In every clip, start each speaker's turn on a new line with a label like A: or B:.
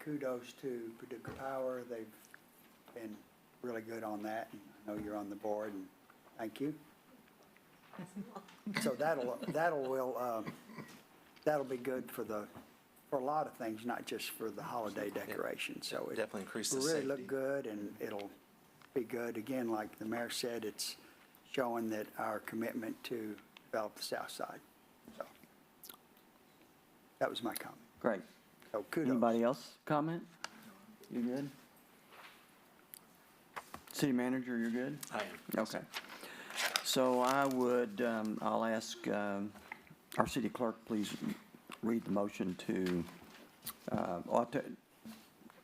A: kudos to Paducah Power. They've been really good on that. and I know you're on the board and thank you. So that'll, that'll will, um, that'll be good for the, for a lot of things, not just for the holiday decorations. So it
B: Definitely increase the
A: will really look
B: safety.
A: good and it'll be good. Again, like the mayor said, it's showing that our commitment to develop the south side. So that was my comment.
C: Great.
A: So kudos.
C: Anybody else comment? You good? City manager, you're good?
B: I am.
C: Okay. So I would, um, I'll ask, um, our city clerk, please read the motion to, uh, ought to,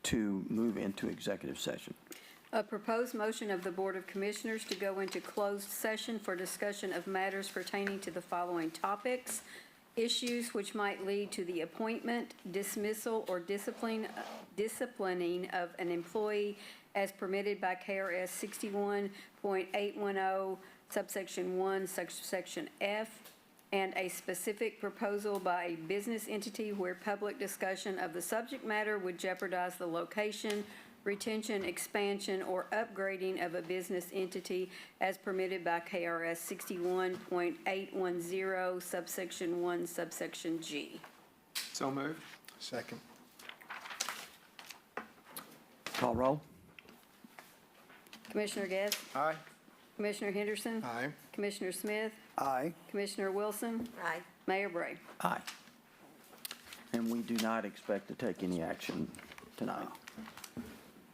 C: to move into executive session.
D: A proposed motion of the Board of Commissioners to go into closed session for discussion of matters pertaining to the following topics: issues which might lead to the appointment, dismissal, or discipline, disciplining of an employee as permitted by KRS sixty-one point eight one oh subsection one, subsection F, and a specific proposal by a business entity where public discussion of the subject matter would jeopardize the location, retention, expansion, or upgrading of a business entity as permitted by KRS sixty-one point eight one zero subsection one subsection G.
E: So moved.
F: Second.
C: Call roll?
D: Commissioner Guest?
E: Aye.
D: Commissioner Henderson?
F: Aye.
D: Commissioner Smith?
A: Aye.
D: Commissioner Wilson?
G: Aye.
D: Mayor Bray?
C: Aye. And we do not expect to take any action tonight.